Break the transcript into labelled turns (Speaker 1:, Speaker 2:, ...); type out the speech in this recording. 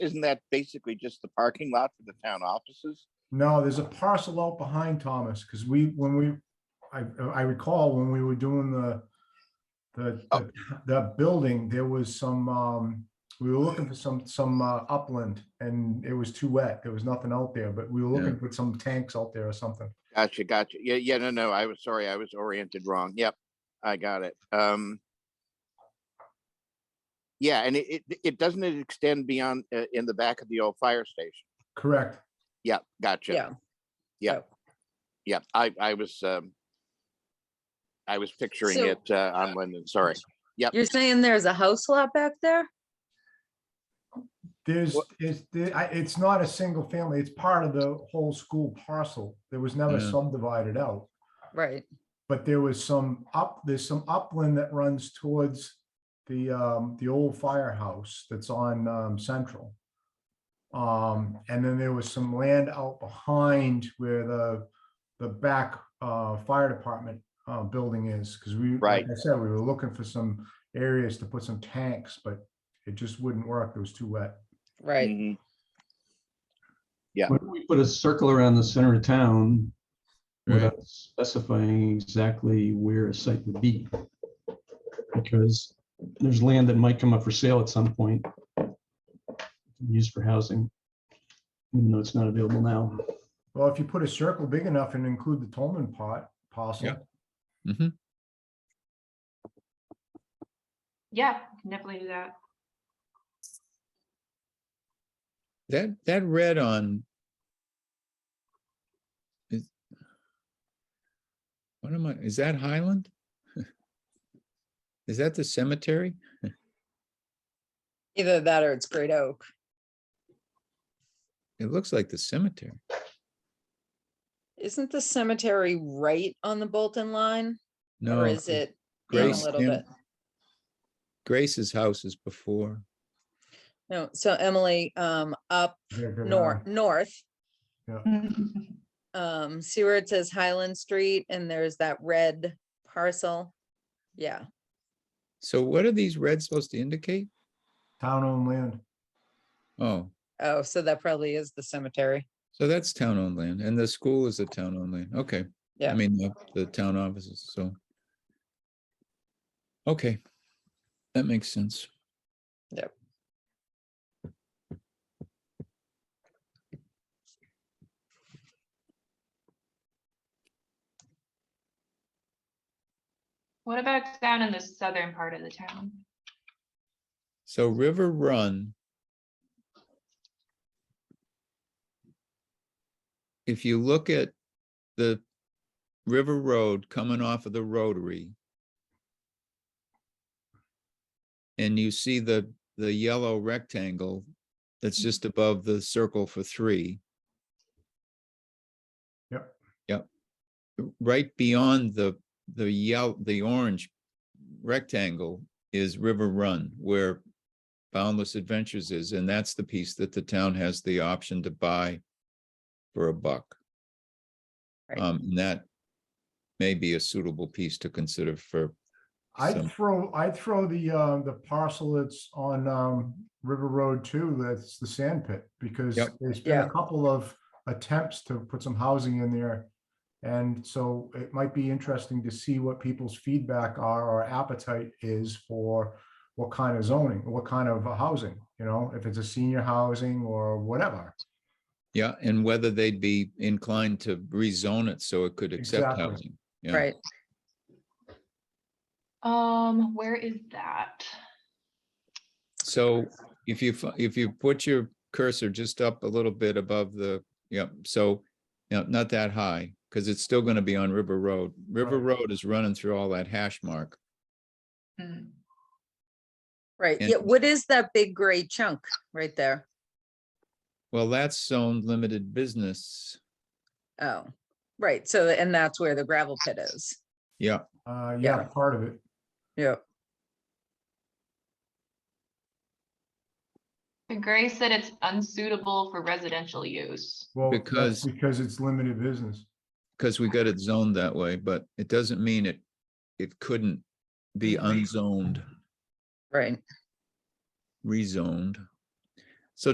Speaker 1: isn't that basically just the parking lot for the town offices?
Speaker 2: No, there's a parcel out behind Thomas, because we, when we, I, I recall when we were doing the, the,
Speaker 1: Oh.
Speaker 2: the building, there was some, um, we were looking for some, some uh, upland and it was too wet. There was nothing out there, but we were looking for some tanks out there or something.
Speaker 1: Gotcha, gotcha. Yeah, yeah, no, no, I was sorry, I was oriented wrong. Yep, I got it. Um. Yeah, and it, it, it doesn't it extend beyond, uh, in the back of the old fire station?
Speaker 2: Correct.
Speaker 1: Yeah, gotcha.
Speaker 3: Yeah.
Speaker 1: Yeah, I, I was, um. I was picturing
Speaker 3: So-
Speaker 1: it, uh, on Linden, sorry.
Speaker 3: You're saying there's a house lot back there?
Speaker 2: There's,
Speaker 1: What-
Speaker 2: it's, the- I- it's not a single family. It's part of the whole school parcel. There was never
Speaker 4: Yeah.
Speaker 2: subdivided out.
Speaker 3: Right.
Speaker 2: but there was some up, there's some upland that runs towards the, um, the old firehouse that's on, um, Central. Um, and then there was some land out behind where the, the back, uh, fire department, uh, building is, because we, like
Speaker 1: Right.
Speaker 2: I said, we were looking for some areas to put some tanks, but it just wouldn't work. It was too wet.
Speaker 5: Mm.
Speaker 3: Right.
Speaker 1: Mhm.
Speaker 4: Why don't we put a circle around the center of town
Speaker 5: Right,
Speaker 4: without specifying exactly where a site would be? Because there's land that might come up for sale at some point. Used for housing. Even though it's not available now.
Speaker 2: Well, if you put a circle big enough and include the Tolman pot, parcel,
Speaker 5: Yeah. hmm
Speaker 6: Yeah, can definitely do that.
Speaker 5: That, that red on. is- What am I, is that Highland? Is that the cemetery?
Speaker 3: Either that or it's Great Oak.
Speaker 5: It looks like the cemetery.
Speaker 3: Isn't the cemetery right on the Bolton line?
Speaker 5: No.
Speaker 3: Or is it in a
Speaker 5: Grace
Speaker 3: little
Speaker 5: Cem-
Speaker 3: bit?
Speaker 5: Grace's house is before.
Speaker 3: No, so Emily, um, up
Speaker 2: they're good
Speaker 3: north, north,
Speaker 6: Can
Speaker 3: um, see where it says Highland Street and there's that red parcel? Yeah,
Speaker 5: So what are these reds supposed to indicate?
Speaker 2: town-owned land.
Speaker 5: Oh,
Speaker 3: oh, so that probably is the cemetery.
Speaker 5: so that's town owned land and the school is a town owned land. Okay.
Speaker 3: Yeah.
Speaker 5: I mean, the, the town offices, so. Okay. That makes sense.
Speaker 6: What about down in the southern part of the town?
Speaker 5: So River Run. If you look at the River Road coming off of the Rotary. And you see the, the yellow rectangle that's just above the circle for three.
Speaker 2: Yep.
Speaker 5: Yep. Right beyond the, the yellow, the orange rectangle is River Run where Boundless Adventures is, and that's the piece that the town has the option to buy for a buck.
Speaker 3: Right.
Speaker 5: Um, and that may be a suitable piece to consider for, some-
Speaker 2: I'd throw, I'd throw the, uh, the parcel that's on, um, River Road too, that's the sand pit, because
Speaker 5: Yep.
Speaker 2: there's been
Speaker 3: Yeah.
Speaker 2: a couple of attempts to put some housing in there. And so it might be interesting to see what people's feedback are or appetite is for what kind of zoning, what kind of housing, you know, if it's a senior housing or whatever.
Speaker 5: yeah, and whether they'd be inclined to rezone it so it could accept
Speaker 2: Exactly.
Speaker 5: housing. Yeah.
Speaker 3: Right,
Speaker 6: Um, where is that?
Speaker 5: So if you, fi- if you put your cursor just up a little bit above the, yep, so, you know, not that high, because it's still gonna be on River Road. River
Speaker 2: Right.
Speaker 5: Road is running through all that hash mark.
Speaker 6: Hmm.
Speaker 3: right.
Speaker 5: And-
Speaker 3: Yeah, what is that big gray chunk right there?
Speaker 5: Well, that's zoned limited business.
Speaker 3: Oh, right. So, and that's where the gravel pit is.
Speaker 5: Yeah,
Speaker 2: Uh, yeah,
Speaker 3: Yeah.
Speaker 2: part of it.
Speaker 3: Yeah.
Speaker 6: But Gray said it's unsuitable for residential use.
Speaker 2: Well, that's
Speaker 5: Because-
Speaker 2: Because it's limited business.
Speaker 5: because we got it zoned that way, but it doesn't mean it, it couldn't be unzoned,
Speaker 3: Right.
Speaker 5: rezoned.